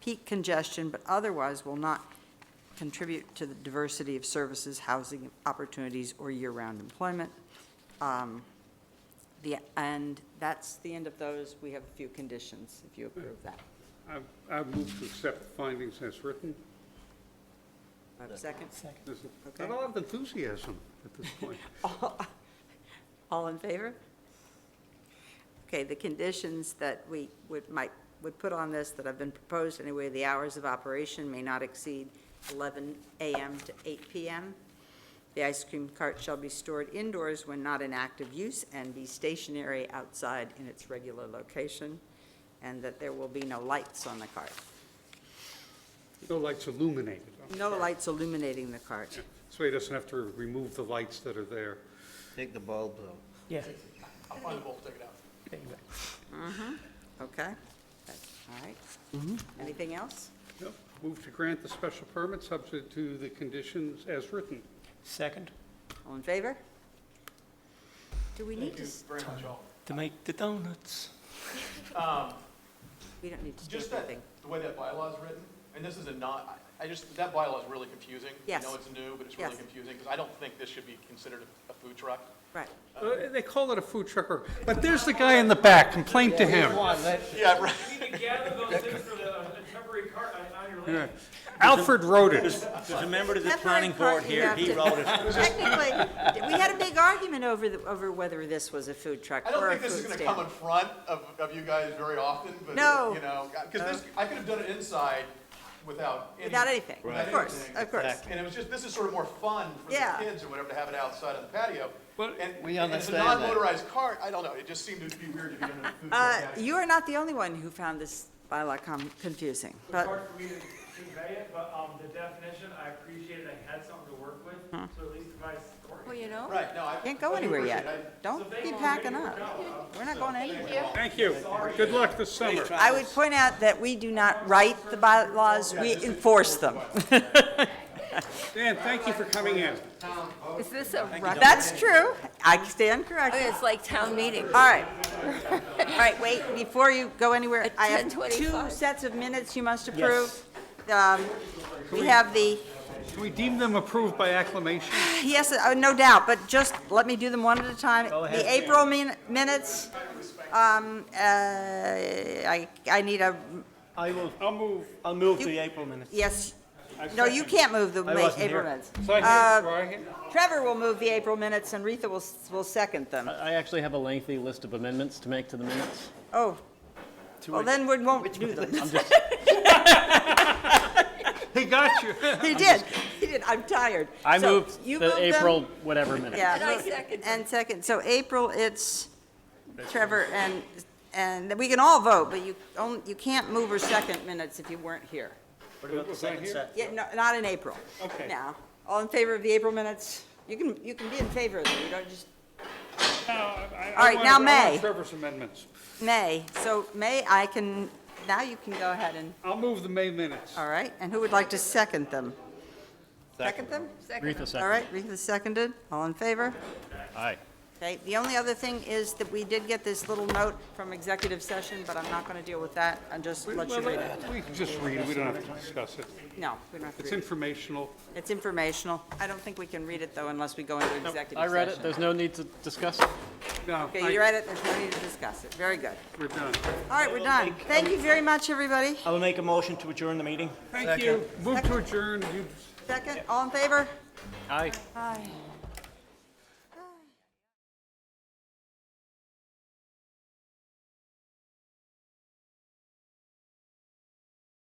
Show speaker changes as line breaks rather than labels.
peak congestion, but otherwise will not contribute to the diversity of services, housing opportunities, or year-round employment. Um, The, and that's the end of those. We have a few conditions, if you approve that.
I, I move to accept the findings as written.
Do I have a Second?
There's
Okay.
not a lot of enthusiasm at this point.
All- All in favor? Okay, the conditions that we would, might, would put on this that have been proposed anyway, the hours of operation may not exceed 11 a.m. to 8 p.m. The ice cream cart shall be stored indoors when not in active use and be stationary outside in its regular location, and that there will be no lights on the cart.
No lights illuminated.
No lights illuminating the cart.
So he doesn't have to remove the lights that are there.
Take the bulbs out.
Yeah,
I'll find the bolt, take it out.
there you go.
Okay? That's- All right. Anything else?
Yep. Move to grant the special permit subject to the conditions as written.
Second,
All in favor? Do we need to, s-
Very much all.
to make the donuts.
we don't need to do
Just that,
anything?
the way that bylaw is written, and this is a not, I I just, that bylaw is really confusing.
Yes.
I know it's new, but it's really
Yes.
confusing, because I don't think this should be considered a a food truck.
Right.
Uh, They call it a food trucker, but there's the guy in the back, complain to him.
Yeah, right.
You can gather those in for the uh, temporary cart on on your land.
Alfred wrote it.
There's a member of the
Temporary
planning
cart,
board
you
here,
have
he
to-
wrote it.
Technically, we had a big argument over, the- over whether this was a food truck
I don't
or a
think this is
food
gonna come in
stand.
front of, of you guys very often, but,
No.
you know, because this, I could have done it inside without any.
Without anything,
without
of course,
anything.
of course.
Exactly.
And it was just, this is sort of more fun for the
Yeah.
kids or whatever to have it outside on the patio.
Well,
And
We
and it's a
understand that.
non-motorized cart, I don't know, it just seemed to be weird to be under the food truck
Uh,
category.
you are not the only one who found this bylaw com- confusing,
It's
but,
hard for me to convey it, but um, the definition, I appreciate it, I had something to work with, so at least if I scored.
well, you know,
Right, no, I.
can't
I
go
do
anywhere
appreciate it.
yet.
So
Don't
they
be
already
packing
worked
up.
out.
We're not going anywhere.
Thank you. Good luck this summer.
I would point out that we do not write the bylaws, we enforce them.
Dan, thank you for coming in.
Is this a record?
That's true. I stand corrected.
It's like town meeting.
All right. All right, wait, before you go anywhere,
At
I have two
10:25.
sets of minutes you must approve. Um, We have the,
Can we deem them approved by acclamation?
yes, uh, no doubt, but just let me do them one at a time. The April min- minutes, um, uh, I, I need a,
I will,
I'll move.
I'll move to the April minutes.
yes, no, you can't move the Ma-
I wasn't
April
here.
minutes.
So I hear- do I hear-
Trevor will move the April minutes, and Rita will, s- will second them.
I actually have a lengthy list of amendments to make to the minutes.
Oh, well, then we won't do them.
He got you.
He did, he did, I'm tired.
I
So
moved
you
the
moved them.
April whatever minute.
Yeah.
And I
look,
second
And second, so April, it's Trevor and, and we can all vote, but you, only- you can't move or second minutes if you weren't here.
What about the second set?
Yeah, no, not in April.
Okay.
No. All in favor of the April minutes? You can, you can be in favor of them, you don't just, All right, now May.
Trevor's amendments.
May. So May, I can, now you can go ahead and,
I'll move the May minutes.
all right, and who would like to second them? Second them?
Rita
All
second.
right, Rita seconded, all in favor?
Aye.
Okay, the only other thing is that we did get this little note from executive session, but I'm not gonna deal with that, I'll just let you read it.
We can just read it, we don't have to discuss it.
No, we don't have to
It's
read it.
informational.
It's informational. I don't think we can read it, though, unless we go into executive session.
I read it, there's no need to discuss it.
No,
Okay, you
I-
read it, there's no need to discuss it. Very good.
we're done.
All right, we're done. Thank you very much, everybody.
I will make a motion to adjourn the meeting.
Thank you. Move to adjourn, you
Second, all in favor?
Aye.
Aye.